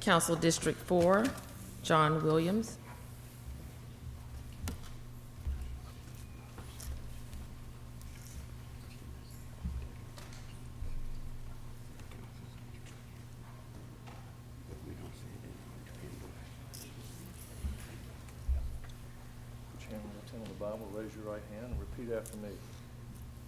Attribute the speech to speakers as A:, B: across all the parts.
A: Council District Four, John Williams.
B: Chairman, Lieutenant of the Bible, raise your right hand and repeat after me.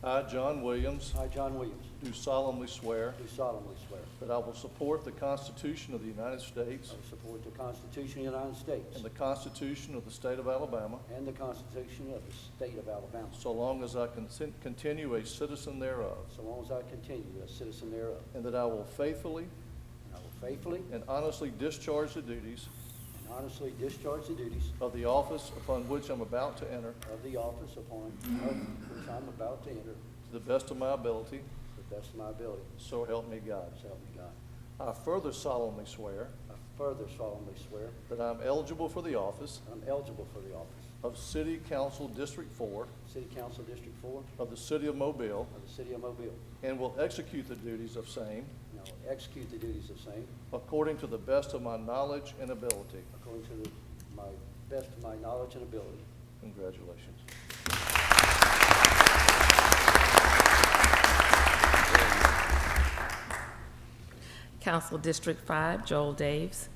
B: I, John Williams,
C: I, John Williams,
B: do solemnly swear
C: do solemnly swear
B: that I will support the Constitution of the United States
C: I will support the Constitution of the United States
B: and the Constitution of the State of Alabama,
C: and the Constitution of the State of Alabama,
B: so long as I consent- continue a citizen thereof,
C: so long as I continue a citizen thereof,
B: and that I will faithfully
C: and I will faithfully
B: and honestly discharge the duties
C: and honestly discharge the duties
B: of the office upon which I'm about to enter
C: of the office upon which I'm about to enter
B: to the best of my ability,
C: to the best of my ability,
B: so help me God.
C: so help me God.
B: I further solemnly swear
C: I further solemnly swear
B: that I'm eligible for the office
C: that I'm eligible for the office
B: of City Council District Four
C: of City Council District Four
B: of the City of Mobile
C: of the City of Mobile, and
B: and will execute the duties of same
C: I will execute the duties of same
B: according to the best of my knowledge and ability.
C: according to the- my best of my knowledge and ability.
B: Congratulations.
A: Council District Five, Joel Daves.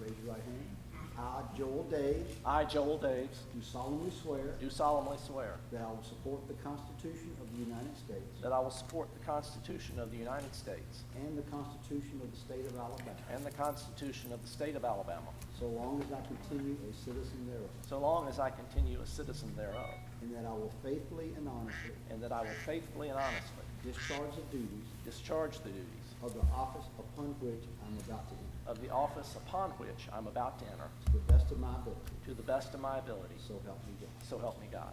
D: Raise your right hand. I, Joel Daves,
E: I, Joel Daves,
D: do solemnly swear
E: do solemnly swear
D: that I will support the Constitution of the United States
E: that I will support the Constitution of the United States
D: and the Constitution of the State of Alabama,
E: and the Constitution of the State of Alabama,
D: so long as I continue a citizen thereof,
E: so long as I continue a citizen thereof,
D: and that I will faithfully and honestly
E: and that I will faithfully and honestly
D: discharge the duties
E: discharge the duties
D: of the office upon which I'm about to enter,
E: of the office upon which I'm about to enter
D: to the best of my ability,
E: to the best of my ability,
D: so help me God.
E: so help me God.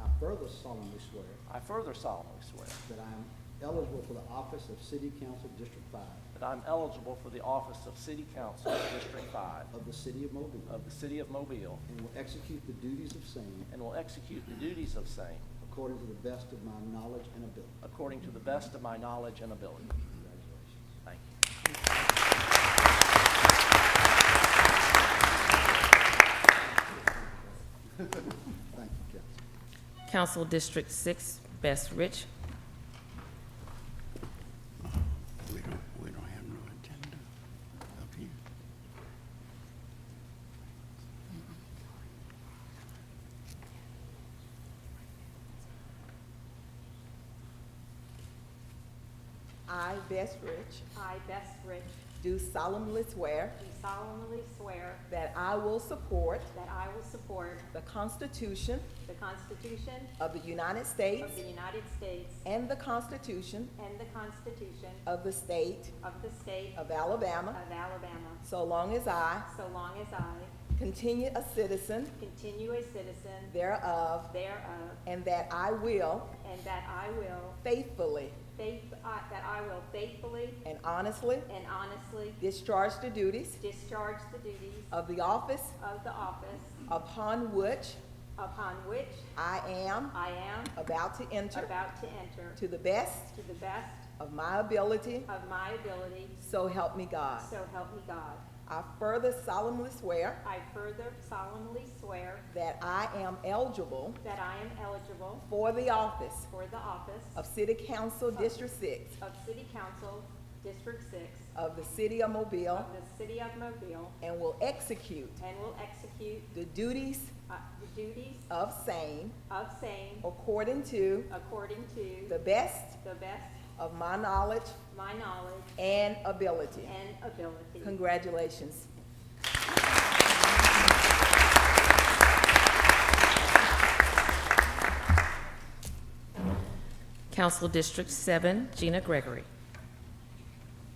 D: I further solemnly swear
E: I further solemnly swear
D: that I am eligible for the office of City Council District Five
E: that I'm eligible for the office of City Council District Five
D: of the City of Mobile,
E: of the City of Mobile
D: and will execute the duties of same
E: and will execute the duties of same
D: According to the best of my knowledge and ability.
E: according to the best of my knowledge and ability.
D: Congratulations.
E: Thank you.
D: Thank you, Council.
A: Council District Six, Bess Rich.
F: We don't, we don't have no agenda up here.
G: I, Bess Rich,
H: I, Bess Rich,
G: do solemnly swear
H: do solemnly swear
G: that I will support
H: that I will support
G: the Constitution
H: the Constitution
G: of the United States
H: of the United States
G: and the Constitution
H: and the Constitution
G: of the State
H: of the State of
G: of Alabama,
H: Alabama,
G: so long as I
H: so long as I
G: continue a citizen
H: continue a citizen
G: thereof,
H: thereof,
G: and that I will
H: and that I will
G: faithfully
H: faith, I- that I will faithfully
G: and honestly
H: and honestly
G: discharge the duties
H: discharge the duties
G: of the office
H: of the office
G: upon which
H: upon which
G: I am
H: I am
G: about to enter
H: about to enter
G: to the best
H: to the best
G: of my ability,
H: of my ability,
G: so help me God.
H: so help me God.
G: I further solemnly swear
H: I further solemnly swear
G: that I am eligible
H: that I am eligible
G: for the office
H: for the office
G: of City Council District Six
H: of City Council, District Six,
G: of the City of Mobile
H: of the City of Mobile,
G: and will execute
H: and will execute
G: the duties
H: uh, the duties
G: of same
H: of same
G: according to
H: according to
G: the best
H: the best
G: of my knowledge
H: my knowledge
G: and ability.
H: and ability.
G: Congratulations.
A: Council District Seven, Gina Gregory.